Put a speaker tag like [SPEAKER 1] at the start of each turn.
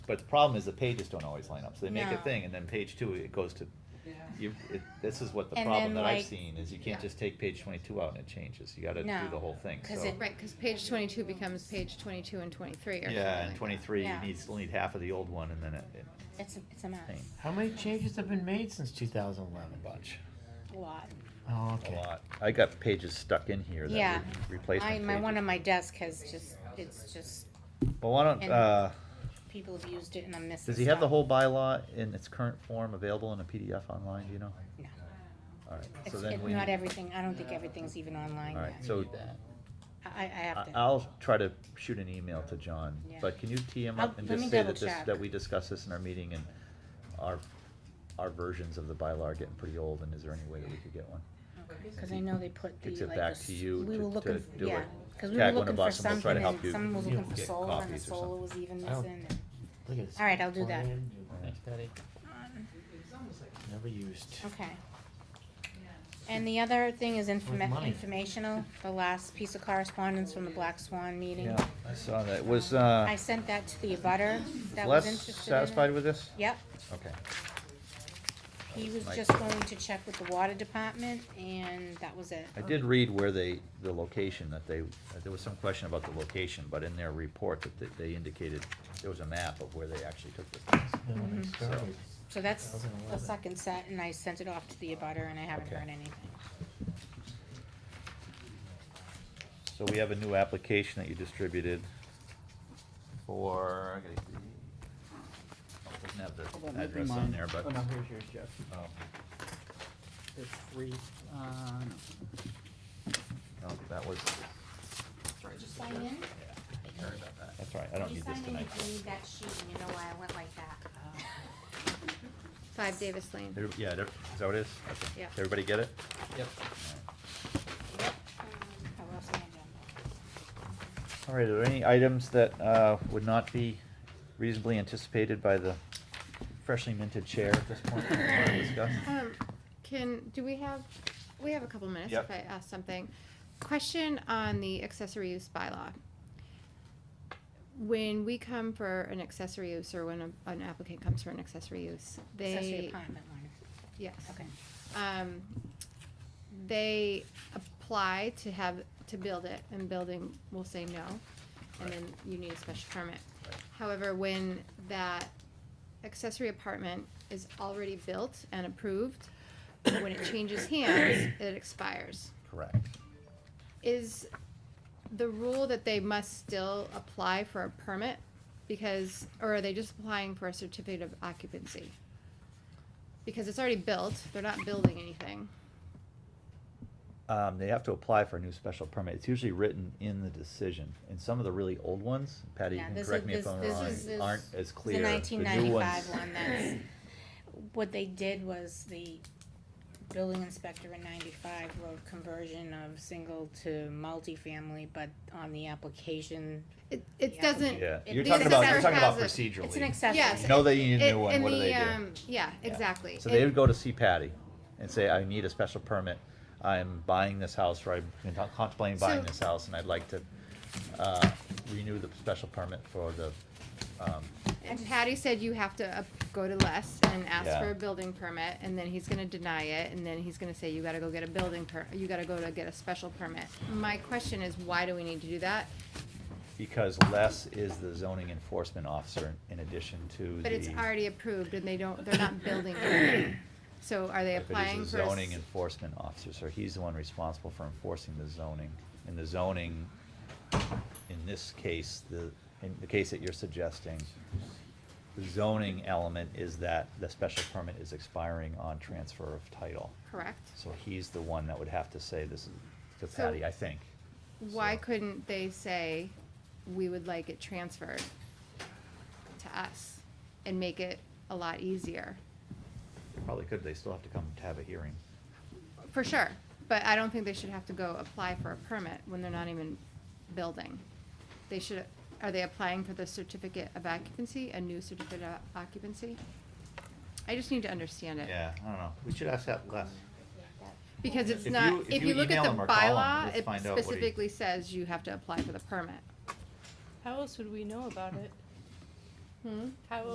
[SPEAKER 1] But the problem is the pages don't always line up, so they make a
[SPEAKER 2] No.
[SPEAKER 1] thing, and then page two, it goes to,
[SPEAKER 3] Yeah.
[SPEAKER 1] you, it, this is what the
[SPEAKER 2] And
[SPEAKER 1] problem
[SPEAKER 2] then,
[SPEAKER 1] that I've
[SPEAKER 2] like-
[SPEAKER 1] seen, is you can't
[SPEAKER 2] yeah.
[SPEAKER 1] just take page twenty-two out and it changes, you gotta do
[SPEAKER 2] No,
[SPEAKER 1] the whole thing, so.
[SPEAKER 2] Cause it, right, cause page twenty-two becomes page twenty-two and twenty-three or something like
[SPEAKER 1] Yeah, and
[SPEAKER 2] that.
[SPEAKER 1] twenty-three, you
[SPEAKER 2] Yeah.
[SPEAKER 1] need, still need half of the old one, and then it, it,
[SPEAKER 2] It's, a- it's a mess,
[SPEAKER 1] thing,
[SPEAKER 4] How many changes have been made since
[SPEAKER 1] a
[SPEAKER 4] 2011?
[SPEAKER 1] bunch,
[SPEAKER 2] a lot.
[SPEAKER 4] Oh,
[SPEAKER 1] a
[SPEAKER 4] okay.
[SPEAKER 1] lot. I got pages stuck in here
[SPEAKER 2] Yeah.
[SPEAKER 1] that were replacement
[SPEAKER 2] I,
[SPEAKER 1] pages.
[SPEAKER 2] my, one on my desk has just, it's just,
[SPEAKER 1] Well, why don't,
[SPEAKER 2] and-
[SPEAKER 1] uh,
[SPEAKER 2] people have used it and I'm missing
[SPEAKER 1] does he have the whole
[SPEAKER 2] stuff.
[SPEAKER 1] bylaw in its current form available in a PDF online, do you know?
[SPEAKER 2] No,
[SPEAKER 1] All right, so
[SPEAKER 2] it's,
[SPEAKER 1] then
[SPEAKER 2] it-
[SPEAKER 1] we.
[SPEAKER 2] not
[SPEAKER 1] need-
[SPEAKER 2] everything, I don't think everything's even online
[SPEAKER 1] All
[SPEAKER 2] yet.
[SPEAKER 1] right, so
[SPEAKER 2] I, I have
[SPEAKER 1] I-
[SPEAKER 2] to.
[SPEAKER 1] I'll try to shoot an email to John,
[SPEAKER 2] Yeah.
[SPEAKER 1] but can you tee him
[SPEAKER 2] I'll-
[SPEAKER 1] up and
[SPEAKER 2] let
[SPEAKER 1] just
[SPEAKER 2] me
[SPEAKER 1] say that this,
[SPEAKER 2] double-check.
[SPEAKER 1] that we discussed this in our meeting and our, our versions of the bylaw are getting pretty old and is there any way that we could get one?
[SPEAKER 2] Because I know they put the, like,
[SPEAKER 1] Gives it
[SPEAKER 2] the
[SPEAKER 1] back
[SPEAKER 2] s-
[SPEAKER 1] to you
[SPEAKER 2] we
[SPEAKER 1] to-
[SPEAKER 2] were looking,
[SPEAKER 1] to
[SPEAKER 2] f-
[SPEAKER 1] do
[SPEAKER 2] yeah,
[SPEAKER 1] it.
[SPEAKER 2] because we were
[SPEAKER 1] Tag one
[SPEAKER 2] looking
[SPEAKER 1] of
[SPEAKER 2] for
[SPEAKER 1] us and we'll try
[SPEAKER 2] something
[SPEAKER 1] to help
[SPEAKER 2] and
[SPEAKER 1] you.
[SPEAKER 2] someone was looking for
[SPEAKER 1] Get
[SPEAKER 2] solar and the
[SPEAKER 1] copies or
[SPEAKER 2] solar
[SPEAKER 1] something.
[SPEAKER 2] was even
[SPEAKER 4] I don't-
[SPEAKER 2] missing. and-
[SPEAKER 4] Look at this.
[SPEAKER 2] All right, I'll do that.
[SPEAKER 4] plan.
[SPEAKER 1] Thanks,
[SPEAKER 4] Patty. Never used.
[SPEAKER 2] Okay. And the other thing is
[SPEAKER 4] With
[SPEAKER 2] informa-
[SPEAKER 4] money.
[SPEAKER 2] informational, the last piece of correspondence from the Black Swan meeting.
[SPEAKER 1] Yeah, I saw that, was,
[SPEAKER 2] I
[SPEAKER 1] uh,
[SPEAKER 2] sent that to the abutter that was
[SPEAKER 1] Les
[SPEAKER 2] interested in it.
[SPEAKER 1] satisfied with this?
[SPEAKER 2] Yep,
[SPEAKER 1] Okay,
[SPEAKER 2] he was
[SPEAKER 1] Mike.
[SPEAKER 2] just going to check with the water department and that was it.
[SPEAKER 1] I did read where they, the location that they, uh, there was some question about the location, but in their report that they- they indicated there was a map of where they actually took the things.
[SPEAKER 4] Then when I
[SPEAKER 2] Mhm.
[SPEAKER 4] started,
[SPEAKER 2] So that's the
[SPEAKER 4] 2011.
[SPEAKER 2] second set and I sent it off to the abutter and I haven't
[SPEAKER 1] Okay.
[SPEAKER 2] heard anything.
[SPEAKER 1] So we have a new application that you distributed for, I gotta see. Oh, it doesn't
[SPEAKER 5] Hold
[SPEAKER 1] have the
[SPEAKER 5] on, let me
[SPEAKER 1] address on
[SPEAKER 5] mine.
[SPEAKER 1] there, but.
[SPEAKER 5] Oh, no, here's yours, Jeff.
[SPEAKER 1] Oh,
[SPEAKER 5] There's three, uh, no.
[SPEAKER 1] no, that was,
[SPEAKER 5] Sorry, just the
[SPEAKER 2] Sign
[SPEAKER 5] Jeff.
[SPEAKER 2] in?
[SPEAKER 5] Sorry about that.
[SPEAKER 1] that's all right, I don't need this tonight.
[SPEAKER 2] You sign in, you need that sheet and you know why I went like that. Five Davis Lane.
[SPEAKER 1] Every- Yeah, there- is that what it is? Okay.
[SPEAKER 2] Yeah.
[SPEAKER 1] Did Everybody get it?
[SPEAKER 5] Yep.
[SPEAKER 2] Yep. Oh, we're also on agenda.
[SPEAKER 1] All right, are there any items that uh, would not be reasonably anticipated by the freshly minted chair at this point that we want to discuss?
[SPEAKER 6] Um, can, do we have, we have a couple minutes
[SPEAKER 1] Yep.
[SPEAKER 6] if I ask something. Question on the accessory use bylaw. When we come for an accessory use or when a- an applicant comes for an accessory use,
[SPEAKER 2] Accessory
[SPEAKER 6] they,
[SPEAKER 2] apartment one,
[SPEAKER 6] yes.
[SPEAKER 2] okay.
[SPEAKER 6] Um, they apply to have, to build it and building will say no. And then you need a special permit.
[SPEAKER 1] Right.
[SPEAKER 6] However, when that accessory apartment is already built and approved, when it changes hands, it expires.
[SPEAKER 1] Correct.
[SPEAKER 6] Is the rule that they must still apply for a permit because, or are they just applying for a certificate of occupancy? Because it's already built, they're not building anything.
[SPEAKER 1] Um, they have to apply for a new special permit. It's usually written in the decision. And some of the really old ones, Patty, you
[SPEAKER 2] Yeah,
[SPEAKER 1] can
[SPEAKER 2] this
[SPEAKER 1] correct
[SPEAKER 2] is-
[SPEAKER 1] me if
[SPEAKER 2] this-
[SPEAKER 1] I'm
[SPEAKER 2] this
[SPEAKER 1] wrong,
[SPEAKER 2] is- this-
[SPEAKER 1] aren't as clear.
[SPEAKER 2] The
[SPEAKER 1] new
[SPEAKER 2] nineteen
[SPEAKER 1] ones-
[SPEAKER 2] ninety-five one, that's, what they did was the building inspector in ninety-five wrote conversion of single to multifamily, but on the application,
[SPEAKER 6] It, it
[SPEAKER 2] Yeah.
[SPEAKER 6] doesn't,
[SPEAKER 1] Yeah,
[SPEAKER 2] It-
[SPEAKER 1] you're
[SPEAKER 2] the
[SPEAKER 1] talking about, you're
[SPEAKER 6] assessor
[SPEAKER 1] talking about
[SPEAKER 6] has it.
[SPEAKER 1] procedurally.
[SPEAKER 2] it's an accessory.
[SPEAKER 6] Yes.
[SPEAKER 1] You know they need a
[SPEAKER 6] It-
[SPEAKER 1] new one,
[SPEAKER 6] in
[SPEAKER 1] what do
[SPEAKER 6] the,
[SPEAKER 1] they do?
[SPEAKER 6] um, Yeah,
[SPEAKER 1] Yeah.
[SPEAKER 6] exactly.
[SPEAKER 1] So
[SPEAKER 6] It-
[SPEAKER 1] they would go to see Patty and say, I need a special permit. I'm buying this house, or I'm contemplating buying
[SPEAKER 6] So-
[SPEAKER 1] this house, and I'd like to, uh, renew the special permit for the, um,
[SPEAKER 6] And Patty said you have to uh, go to Les and ask
[SPEAKER 1] Yeah.
[SPEAKER 6] for a building permit, and then he's gonna deny it, and then he's gonna say you gotta go get a building per, you gotta go to get a special permit. My question is, why do we need to do that?
[SPEAKER 1] because Les is the zoning enforcement officer in addition to the.
[SPEAKER 6] But it's already approved, and they don't, they're not building anything. So are they
[SPEAKER 1] Right, but he's
[SPEAKER 6] applying
[SPEAKER 1] the
[SPEAKER 6] for? a s-
[SPEAKER 1] Zoning enforcement officer, so he's the one responsible for enforcing the zoning. And the zoning, in this case, the, in the case that you're suggesting, the zoning element is that the special permit is expiring on transfer of title.
[SPEAKER 6] Correct.
[SPEAKER 1] So he's the one that would have to say this is to
[SPEAKER 6] So-
[SPEAKER 1] Patty, I think.
[SPEAKER 6] Why
[SPEAKER 1] So-
[SPEAKER 6] couldn't they say, we would like it transferred to us and make it a lot easier?
[SPEAKER 1] They Probably could, they still have to come to have a hearing.
[SPEAKER 6] For sure, but I don't think they should have to go apply for a permit when they're not even building. They should, are they applying for the certificate of occupancy, a new certificate of occupancy? I just need to understand it.
[SPEAKER 1] Yeah, I don't know, we should ask that Les.
[SPEAKER 6] Because it's
[SPEAKER 1] If you-
[SPEAKER 6] not,
[SPEAKER 1] if
[SPEAKER 6] if
[SPEAKER 1] you
[SPEAKER 6] you look at
[SPEAKER 1] email
[SPEAKER 6] the
[SPEAKER 1] him or call him,
[SPEAKER 6] bylaw,
[SPEAKER 1] let's
[SPEAKER 6] it
[SPEAKER 1] find out what he-
[SPEAKER 6] specifically says you have to apply for the permit.
[SPEAKER 7] How else would we know about it?
[SPEAKER 8] Hmm?
[SPEAKER 6] How